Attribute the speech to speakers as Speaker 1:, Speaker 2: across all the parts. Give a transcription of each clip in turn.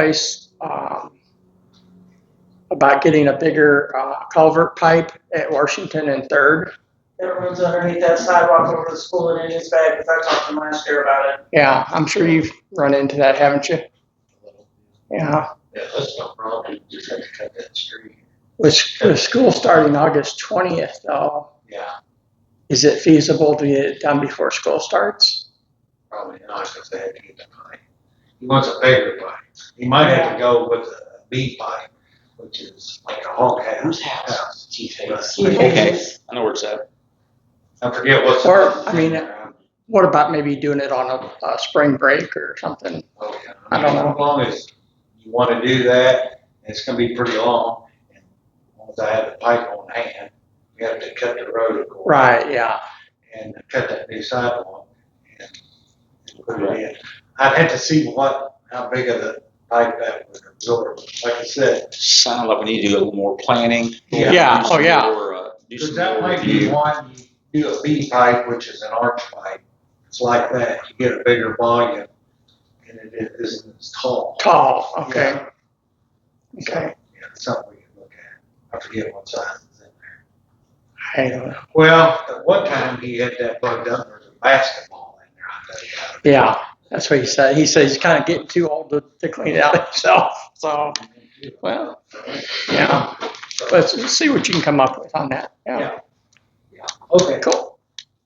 Speaker 1: place um, about getting a bigger uh, culvert pipe at Washington and Third.
Speaker 2: That runs underneath that sidewalk over the school and in his bag, because I talked to him last year about it.
Speaker 1: Yeah, I'm sure you've run into that, haven't you? Yeah,
Speaker 3: Yeah, that's no problem, you just have to cut that street.
Speaker 1: with, s- with school starting August 20th though,
Speaker 3: Yeah,
Speaker 1: is it feasible to get it done before school starts?
Speaker 3: probably not, because they had to get the pipe. He wants a bigger pipe. He might have to go with a B pipe, which is like a hog house.
Speaker 4: Whose house? Chief Hayes.
Speaker 3: Okay.
Speaker 4: I know where it's at.
Speaker 3: I forget what's.
Speaker 1: Or, I mean, uh, What about maybe doing it on a, a spring break or something?
Speaker 3: Oh, yeah.
Speaker 1: I don't know.
Speaker 3: As long as you want to do that, it's going to be pretty long. And Once I have the pipe on hand, we have to cut the road, of course.
Speaker 1: Right, yeah,
Speaker 3: and cut that new sidewalk and and put it in. I'd have to see what, how big of the pipe that would absorb. Like I said,
Speaker 4: Sound like we need to do a little more planning.
Speaker 3: Yeah.
Speaker 1: Yeah.
Speaker 4: Do some
Speaker 1: Oh, yeah.
Speaker 4: more, uh, Do
Speaker 3: because
Speaker 4: some
Speaker 3: that
Speaker 4: more
Speaker 3: might be
Speaker 4: review.
Speaker 3: one, you do a B pipe, which is an arch pipe. It's like that, you get a bigger volume and it isn't as tall.
Speaker 1: tall, okay, okay.
Speaker 3: Yeah, it's something we can look at. I forget what size it's in there.
Speaker 1: I don't know.
Speaker 3: Well, at one time he had that plugged up, there's a basketball in there, I bet he had it.
Speaker 1: Yeah, that's what he said. He said he's kind of getting too old to, to clean it out himself. So, well, yeah. Let's let's see what you can come up with on that. Yeah,
Speaker 3: Okay.
Speaker 1: cool.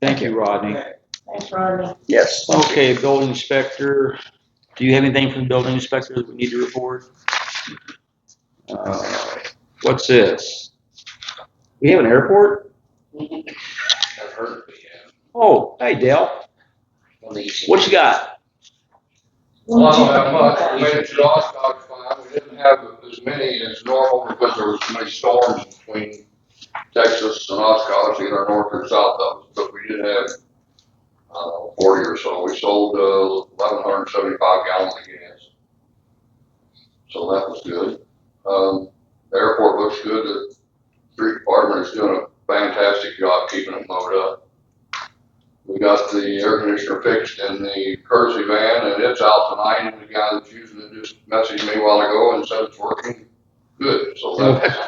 Speaker 5: Thank you, Rodney.
Speaker 2: Thanks, Rodney.
Speaker 1: Yes.
Speaker 5: Okay, building inspector, do you have anything from the building inspector that we need to report? Uh, What's this? We have an airport?
Speaker 3: I've heard, yeah.
Speaker 5: Oh, hey Dale, what you got?
Speaker 6: Well, that much, we made a July stock file, we didn't have as many as normal because there was so many storms between Texas and Oshkosh, either north or south of us, but we did have, uh, forty or so, we sold, uh, eleven hundred and seventy-five gallons of gas. So that was good, um, the airport looks good, the street department is doing a fantastic job keeping it mowed up. We got the air conditioner fixed in the Kersey van and it's out tonight and the guy that's using it just messaged me a while ago and said it's working good, so that's.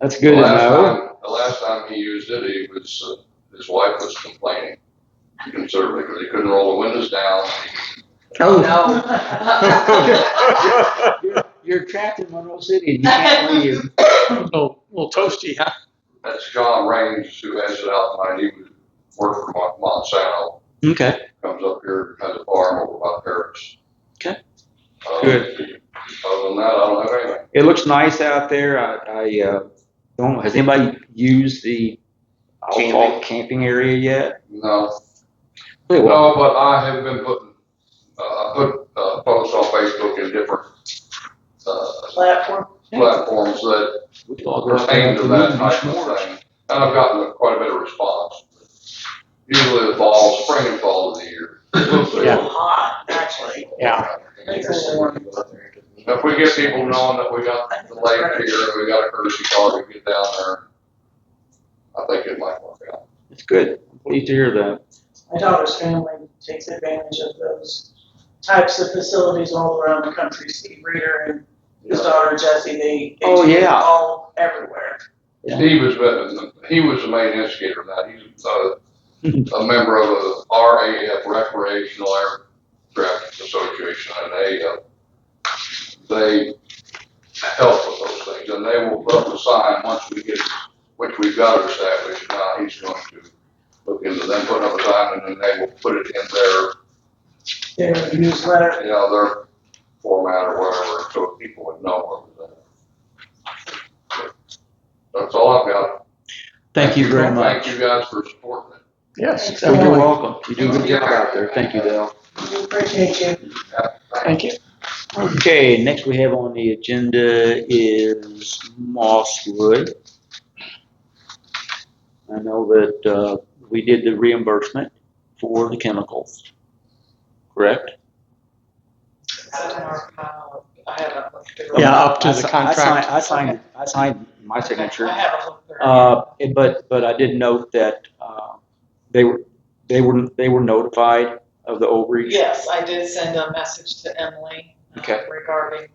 Speaker 5: That's good to
Speaker 6: The last
Speaker 5: know.
Speaker 6: time- The last time he used it, he was, uh, his wife was complaining considerably because he couldn't roll the windows down.
Speaker 1: Oh,
Speaker 2: No.
Speaker 5: Oh. You're trapped in Monroe City and you can't leave.
Speaker 1: a little, little toasty, huh?
Speaker 6: That's John Raines who has it out tonight. He was worked for Mon- Monsanto,
Speaker 5: Okay,
Speaker 6: comes up here, has a farm over by Paris.
Speaker 5: Okay.
Speaker 6: Uh,
Speaker 5: Good.
Speaker 6: Other than that, I don't have anything.
Speaker 5: it looks nice out there. I, I, uh, don't, has anybody used the, I'll call it camping area yet?
Speaker 6: No,
Speaker 5: Really, well,
Speaker 6: No, but I have been putting, uh, I put, uh, posts on Facebook in different, uh,
Speaker 2: Platform.
Speaker 6: platforms that
Speaker 5: we could all go out there
Speaker 6: pertain
Speaker 5: and
Speaker 6: to
Speaker 5: have
Speaker 6: that
Speaker 5: a
Speaker 6: type
Speaker 5: meeting.
Speaker 6: of thing. And I've gotten quite a bit of response. Usually the fall, spring and fall of the year.
Speaker 1: Yeah.
Speaker 2: Hot, actually.
Speaker 1: Yeah.
Speaker 6: If we get people knowing that we got the lake here, and we got a courtesy car to get down there, I think it might work out.
Speaker 5: It's good. I'm pleased to hear that.
Speaker 2: My daughter's family takes advantage of those types of facilities all around the country. Steve Reader and his daughter Jessie, they. they
Speaker 5: Oh,
Speaker 2: do it
Speaker 5: yeah.
Speaker 2: All everywhere.
Speaker 5: Yeah.
Speaker 6: He was, the- he was the main instigator of that. He's uh, a, a member of the RAF Recreational Aircraft Association and they, uh, they help with those things and they will put up a sign once we get, which we've got established now, he's going to look into them, put up a sign and then they will put it in their,
Speaker 2: Their newsletter.
Speaker 6: you know, their format or whatever, so people would know what was in it. That's all I've got.
Speaker 5: Thank you very
Speaker 6: Thank
Speaker 5: much.
Speaker 6: you guys for supporting it.
Speaker 1: Yes,
Speaker 5: You're
Speaker 1: exactly.
Speaker 5: welcome. You do a good job out there. Thank you, Dale.
Speaker 2: We appreciate you.
Speaker 1: Thank you.
Speaker 5: Okay, next we have on the agenda is Mosswood. I know that, uh, we did the reimbursement for the chemicals. Correct?
Speaker 2: I haven't looked through.
Speaker 1: Yeah, up to
Speaker 5: I
Speaker 1: the
Speaker 5: si- I
Speaker 1: contract.
Speaker 5: signed- I signed, I signed my signature.
Speaker 2: I haven't looked through.
Speaker 5: Uh, and- but, but I did note that, uh, they were, they were, they were notified of the overreach.
Speaker 7: Yes, I did send a message to Emily. uh,
Speaker 5: Okay.
Speaker 7: Regarding